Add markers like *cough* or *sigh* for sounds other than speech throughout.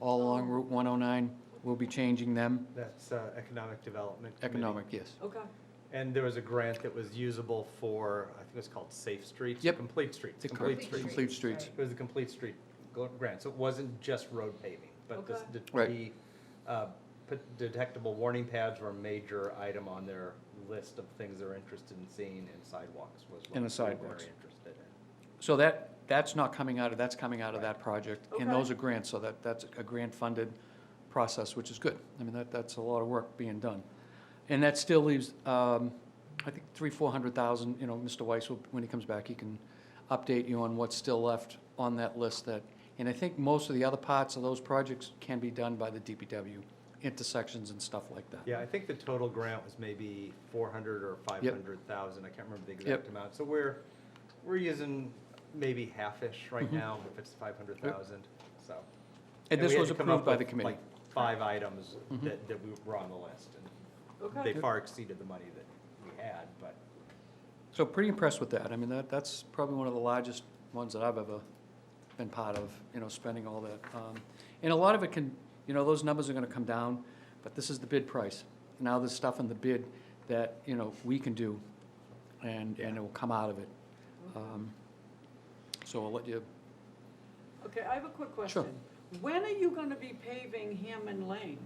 all along Route 109. We'll be changing them. That's uh, Economic Development. Committee. Economic, yes. Okay, And there was a grant that was usable for, I think it was called Safe Streets. or Yep. Complete Streets. The Complete complete- Streets. Complete streets. It was a complete street gl- grant, so it wasn't just road paving, but this- Okay. the, the Right. uh, p- detectable warning pads were a major item on their list of things they're interested in seeing, and sidewalks was one. And the that they were sidewalks. Very interested in. So that, that's not coming out of, that's coming out of Right. that project. Okay. And those are grants, so that, that's a grant-funded process, which is good. I mean, that, that's a lot of work being done. And that still leaves, um, I think, three, four hundred thousand, you know, Mr. Weiss, will- when he comes back, he can update you on what's still left on that list that, and I think most of the other parts of those projects can be done by the DPW, intersections and stuff like that. Yeah, I think the total grant was maybe four hundred or five hundred thousand, I can't remember the exact Yep. amount. So we're, we're using maybe half-ish right Mhm. now, if it's five hundred thousand, so. And this we had was to come approved up by with, the committee. like, Five items Mhm. that, that we were on the list, and They okay. far exceeded the money that we had, but So pretty impressed with that. I mean, that, that's probably one of the largest ones that I've ever been part of, you know, spending all that. Um, And a lot of it can, you know, those numbers are gonna come down, but this is the bid price. Now there's stuff in the bid that, you know, we can do and, and it will come out of it. Um, So I'll let you, *laughs* Okay, I have a quick Sure. question. When are you gonna be paving Hammond Lane?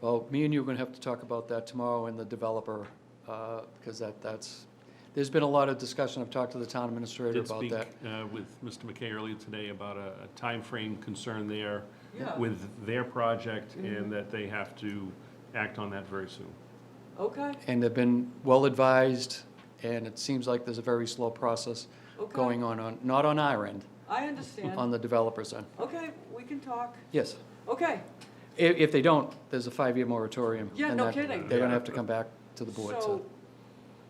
well, me and you are gonna have to talk about that tomorrow and the developer, uh, because that, that's, there's been a lot of discussion. I've talked to the town administrator Did about speak that. uh, with Mr. McKay earlier today about a a timeframe concern there Yeah. with their project Mm-hmm. and that they have to act on that very soon. Okay, and have been well advised, and it seems like there's a very slow process Okay. going on, on, not on our end, I understand. on the developer's end. Okay, we can talk. Yes. Okay, If, if they don't, there's a five-year moratorium. Yeah, and no that- kidding. They're gonna have to come back to the board, so. so,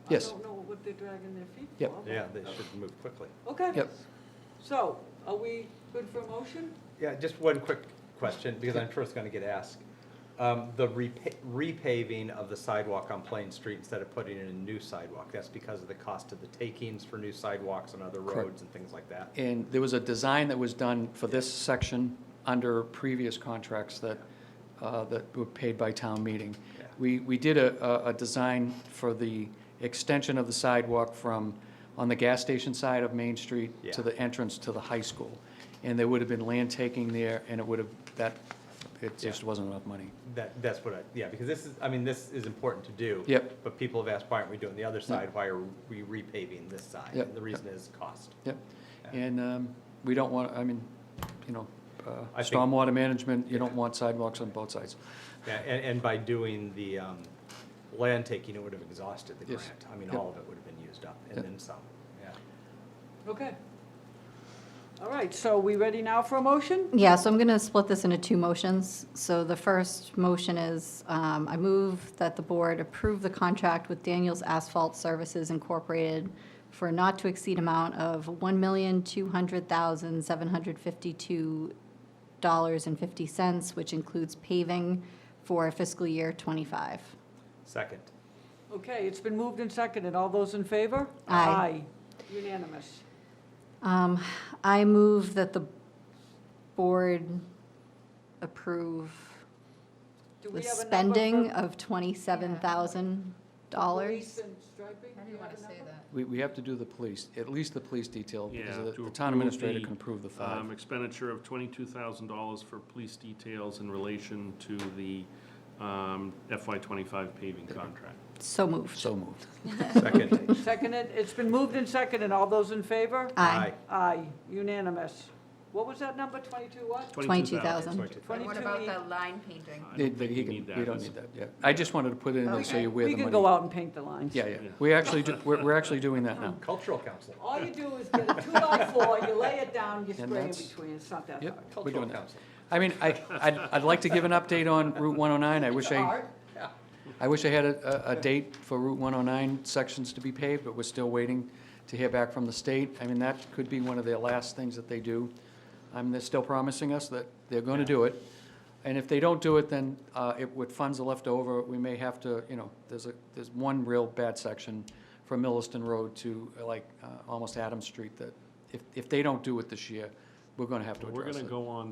I Yes. don't know what they're dragging their feet Yep. for. yeah, they should move quickly. Okay. Yep. So, are we good for a motion? Yeah, just one quick question, because I'm sure it's gonna get asked. Um, the repa- repaving of the sidewalk on Plain Street instead of putting in a new sidewalk, that's because of the cost of the takings for new sidewalks on other Correct. roads and things like that. And there was a design that was done for this section under previous contracts that, uh, that were paid by town meeting. Yeah. We, we did a, a, a design for the extension of the sidewalk from, on the gas station side of Main Street to Yeah. the entrance to the high school. And there would have been land taking there, and it would have, that, it just Yeah. wasn't enough money. That, that's what I, yeah, because this is, I mean, this is important to do. Yep. But people have asked, why aren't we doing the other side? Why are we repaving this side? Yep. And the reason is cost. Yep. Yeah. And, um, we don't want, I mean, you know, uh, I think- stormwater management, you don't want sidewalks on both sides. Yeah, and, and by doing the um, land taking, it would have exhausted the Yes. grant. I mean, Yep. all of it would have been used up, and Yep. then some, yeah. Okay. All right, so we ready now for a motion? Yeah, so I'm going to split this into two motions. So the first motion is, um, I move that the board approve the contract with Daniels Asphalt Services Incorporated for a not to exceed amount of $1,200,752.50, which includes paving for fiscal year '25. Second, Okay, it's been moved and seconded. All those in favor? Aye. Aye. Unanimous. Um, I move that the board approve Do we the have a number spending for of $27,000. Police and striping? Do you have a number? We, we have to do the police, at least the police detail, because Yeah, the- to the town approve administrator the, can approve the Um, five. Expenditure of twenty-two thousand dollars for police details in relation to the FY twenty-five paving contract. So moved. So moved. second. Seconded, it's been moved and seconded, all those in favor? Aye. Aye, unanimous. What was that number, 22 what? 22,000. 22,000. Sorry, to- And what 22 about E. the line painting? I They- don't they- think he we can- need that. We don't It's- need that, yeah. I just wanted to put it in there so Okay, you wear the We money. can go out and paint the lines. Yeah, yeah, Yeah. we actually, do- we're, we're actually doing that now. Cultural Council, All you do is get a two-by-four, you lay it down, you And spray in that's- between, it's not that hard. Yep, we're Cultural doing that. Council. I mean, I, I'd, I'd like to give an update on Route 109, I wish I, Art? I wish I had a, a a date for Route 109 sections to be paved, but we're still waiting to hear back from the state. I mean, that could be one of their last things that they do. I mean, they're still promising us that they're gonna do it. And if they don't do it, then, uh, if, with funds are left over, we may have to, you know, there's a, there's one real bad section from Milliston Road to, uh, like, uh, almost Adams Street that, if, if they don't do it this year, we're gonna have to We're address going to it. go on